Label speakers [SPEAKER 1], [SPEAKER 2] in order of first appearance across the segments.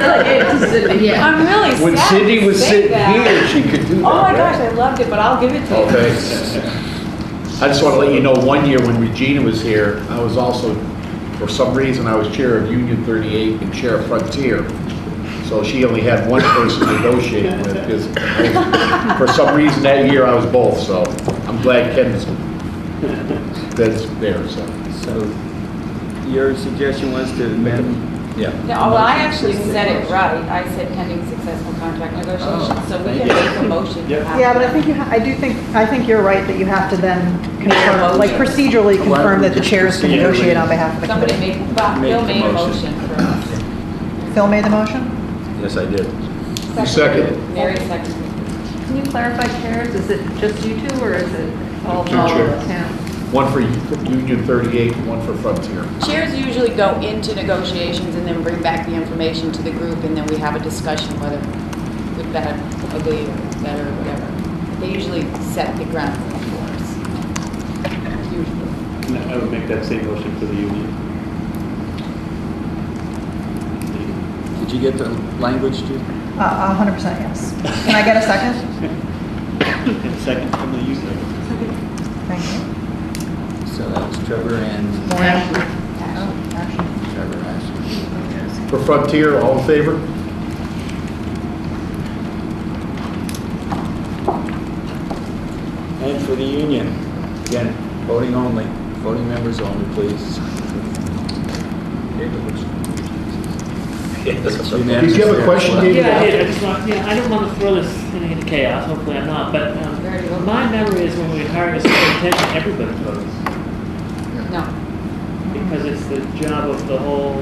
[SPEAKER 1] Yeah.
[SPEAKER 2] I'm really sad.
[SPEAKER 3] When Cindy
[SPEAKER 2] to
[SPEAKER 3] was
[SPEAKER 2] say
[SPEAKER 3] sitting
[SPEAKER 2] that.
[SPEAKER 3] here, she could do that.
[SPEAKER 2] Oh my
[SPEAKER 3] right?
[SPEAKER 2] gosh, I loved it, but I'll give it to you.
[SPEAKER 3] Okay. I just want to let you know, one year when Regina was here, I was also, for some reason, I was chair of Union 38 and chair of Frontier. So she only had one person to negotiate with, because for some reason that year I was both, so I'm glad Ken's, that's there, so.
[SPEAKER 4] So your suggestion was to amend?
[SPEAKER 3] Yeah.
[SPEAKER 2] No, well, I actually said it right. I said pending successful contract negotiations, so we can
[SPEAKER 3] Oh, thank you.
[SPEAKER 2] make a motion.
[SPEAKER 4] Yeah.
[SPEAKER 5] Yeah, but I think, you ha- I do think, I think you're right that you have to then
[SPEAKER 2] Yeah.
[SPEAKER 5] confirm, like procedurally
[SPEAKER 4] Why don't
[SPEAKER 5] confirm
[SPEAKER 4] we
[SPEAKER 5] that the
[SPEAKER 4] just
[SPEAKER 5] chairs can
[SPEAKER 4] procedurally-
[SPEAKER 5] negotiate on behalf of the
[SPEAKER 2] Somebody
[SPEAKER 5] committee.
[SPEAKER 2] made, Bob,
[SPEAKER 4] Make
[SPEAKER 2] Bill
[SPEAKER 4] the
[SPEAKER 2] made a
[SPEAKER 4] motion.
[SPEAKER 2] motion for us.
[SPEAKER 5] Phil made the motion?
[SPEAKER 3] Yes, I did.
[SPEAKER 2] Seconded.
[SPEAKER 3] You seconded.
[SPEAKER 2] Mary seconded.
[SPEAKER 1] Can you clarify, chairs? Is it just you two or is it all?
[SPEAKER 3] Two
[SPEAKER 1] all
[SPEAKER 3] chairs.
[SPEAKER 1] town?
[SPEAKER 3] One for Union 38, one for Frontier.
[SPEAKER 2] Chairs usually go into negotiations and then bring back the information to the group, and then we have a discussion whether good, bad, ugly, or better, or whatever. They usually set the ground rule for us. Usually.
[SPEAKER 6] I would make that same motion for the union.
[SPEAKER 4] Did you get the language to?
[SPEAKER 5] Uh, 100% yes. Can I get a second?
[SPEAKER 6] Second from the union.
[SPEAKER 5] Thank you.
[SPEAKER 4] So that was Trevor and
[SPEAKER 1] Actually,
[SPEAKER 5] Oh, action.
[SPEAKER 4] Trevor Ashley.
[SPEAKER 3] For Frontier, all in favor?
[SPEAKER 4] And for the union, again, voting only, voting members only, please. It's unanimous
[SPEAKER 3] Did you have a question,
[SPEAKER 4] there.
[SPEAKER 3] David?
[SPEAKER 6] Yeah, I did. I just want, yeah, I don't want to throw this thing into chaos, hopefully I'm not, but,
[SPEAKER 2] Very well.
[SPEAKER 6] um, my memory is when we hire a superintendent, everybody votes.
[SPEAKER 2] No.
[SPEAKER 6] Because it's the job of the whole,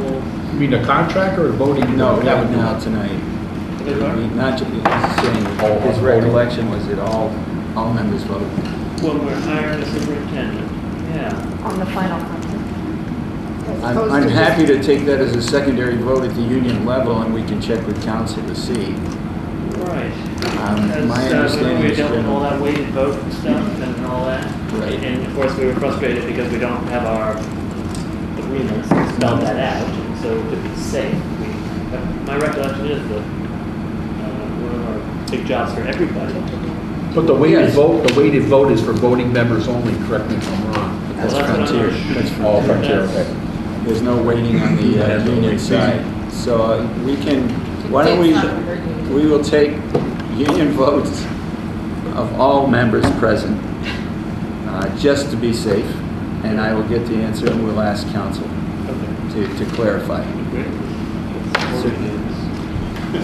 [SPEAKER 3] You mean a contract or a voting?
[SPEAKER 4] No,
[SPEAKER 3] That
[SPEAKER 4] not
[SPEAKER 3] would be-
[SPEAKER 4] now tonight.
[SPEAKER 6] the
[SPEAKER 4] It would be
[SPEAKER 6] department.
[SPEAKER 4] Not, ju- he's
[SPEAKER 3] All
[SPEAKER 4] saying, his
[SPEAKER 3] voting.
[SPEAKER 4] recollection was that all, all members voted.
[SPEAKER 6] when we're hiring a superintendent, yeah.
[SPEAKER 1] On the final contract.
[SPEAKER 4] I'm, I'm happy to take that as a secondary vote at the union level, and we can check with council to see.
[SPEAKER 6] Right.
[SPEAKER 4] Um,
[SPEAKER 6] Because,
[SPEAKER 4] my
[SPEAKER 6] uh,
[SPEAKER 4] understanding
[SPEAKER 6] We
[SPEAKER 4] is
[SPEAKER 6] dealt with
[SPEAKER 4] that-
[SPEAKER 6] all that weighted vote and stuff and all that.
[SPEAKER 4] Right.
[SPEAKER 6] And of course, we were frustrated because we don't have our agreements spelled that out. And So to be safe, we, uh, my recollection is that, uh, one of our big jobs for everybody.
[SPEAKER 3] But the weighted
[SPEAKER 4] Yes.
[SPEAKER 3] vote, the weighted vote is for voting members only, correct me if I'm wrong.
[SPEAKER 4] That's
[SPEAKER 6] Well, what I'm-
[SPEAKER 4] Frontier. That's
[SPEAKER 3] All
[SPEAKER 6] Frontier,
[SPEAKER 3] Frontier,
[SPEAKER 6] okay.
[SPEAKER 4] There's no waiting on the uh, union side. So uh, we can, why don't we,
[SPEAKER 2] It's not hurting.
[SPEAKER 4] we will take union votes of all members present, uh, just to be safe, and I will get the answer, and we'll ask council
[SPEAKER 6] Okay.
[SPEAKER 4] to to clarify.
[SPEAKER 6] Great.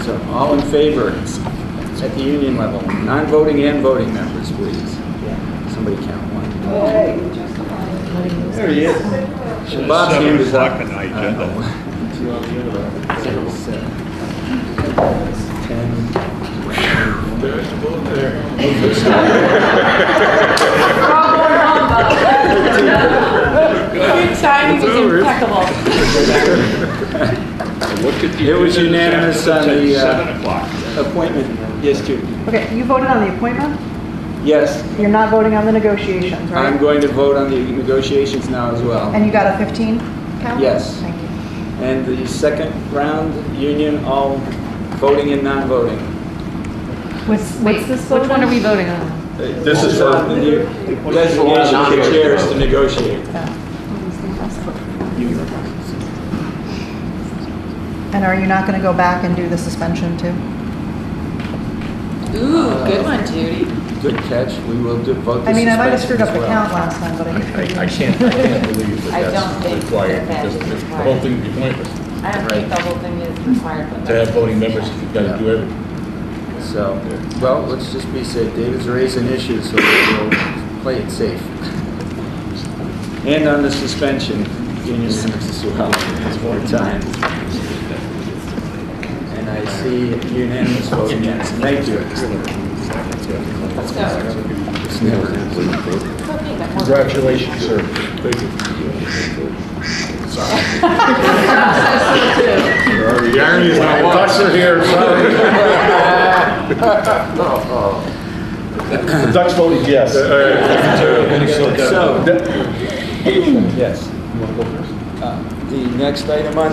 [SPEAKER 4] So all in favor at the union level, non-voting and voting members, please. Somebody count one.
[SPEAKER 5] Oh,
[SPEAKER 6] There he is.
[SPEAKER 4] Well, Bob's Uh,
[SPEAKER 7] Seven
[SPEAKER 4] hand is up.
[SPEAKER 7] o'clock at night,
[SPEAKER 4] I don't know. Seven. Ten.
[SPEAKER 2] Your timing was impeccable.
[SPEAKER 4] It was unanimous on the uh,
[SPEAKER 7] Seven o'clock.
[SPEAKER 4] appointment. Yes, Jude.
[SPEAKER 5] Okay, you voted on the appointment?
[SPEAKER 4] Yes,
[SPEAKER 5] You're not voting on the negotiations,
[SPEAKER 4] I'm
[SPEAKER 5] right?
[SPEAKER 4] going to vote on the negotiations now as well.
[SPEAKER 5] And you got a 15 count?
[SPEAKER 4] Yes.
[SPEAKER 5] Thank you.
[SPEAKER 4] And the second round, union, all voting and non-voting.
[SPEAKER 5] What's, what's this vote
[SPEAKER 1] Which one
[SPEAKER 5] on?
[SPEAKER 1] are we voting on?
[SPEAKER 3] This is for-
[SPEAKER 4] The new Designation of the chairs to negotiate.
[SPEAKER 5] And are you not going to go back and do the suspension too?
[SPEAKER 2] Ooh, good one, Judy.
[SPEAKER 4] Good catch, we will do- vote the suspension
[SPEAKER 5] I mean, I might have screwed
[SPEAKER 4] as
[SPEAKER 5] up the
[SPEAKER 4] well.
[SPEAKER 5] count last time, but I didn't.
[SPEAKER 8] I, I can't, I can't believe
[SPEAKER 2] I
[SPEAKER 8] that
[SPEAKER 2] don't think
[SPEAKER 8] that's required,
[SPEAKER 2] that
[SPEAKER 8] just
[SPEAKER 2] is
[SPEAKER 8] the
[SPEAKER 2] required.
[SPEAKER 8] whole thing would be pointless,
[SPEAKER 2] I don't think the whole thing is required, but.
[SPEAKER 8] to have voting members, you've got to do everything.
[SPEAKER 4] So, well, let's just be safe. David's raising issues, so we'll play it safe. And on the suspension, union members as well, it's more time. And I see unanimous vote against. Thank you.
[SPEAKER 2] So,
[SPEAKER 4] It's never-
[SPEAKER 2] it's okay, but more-
[SPEAKER 3] Congratulations, sir. The irony is my thoughts are here, sorry. The Ducks voted yes.
[SPEAKER 4] So,
[SPEAKER 3] That-
[SPEAKER 4] yes.
[SPEAKER 3] You wanna go first?
[SPEAKER 4] Uh, The next item on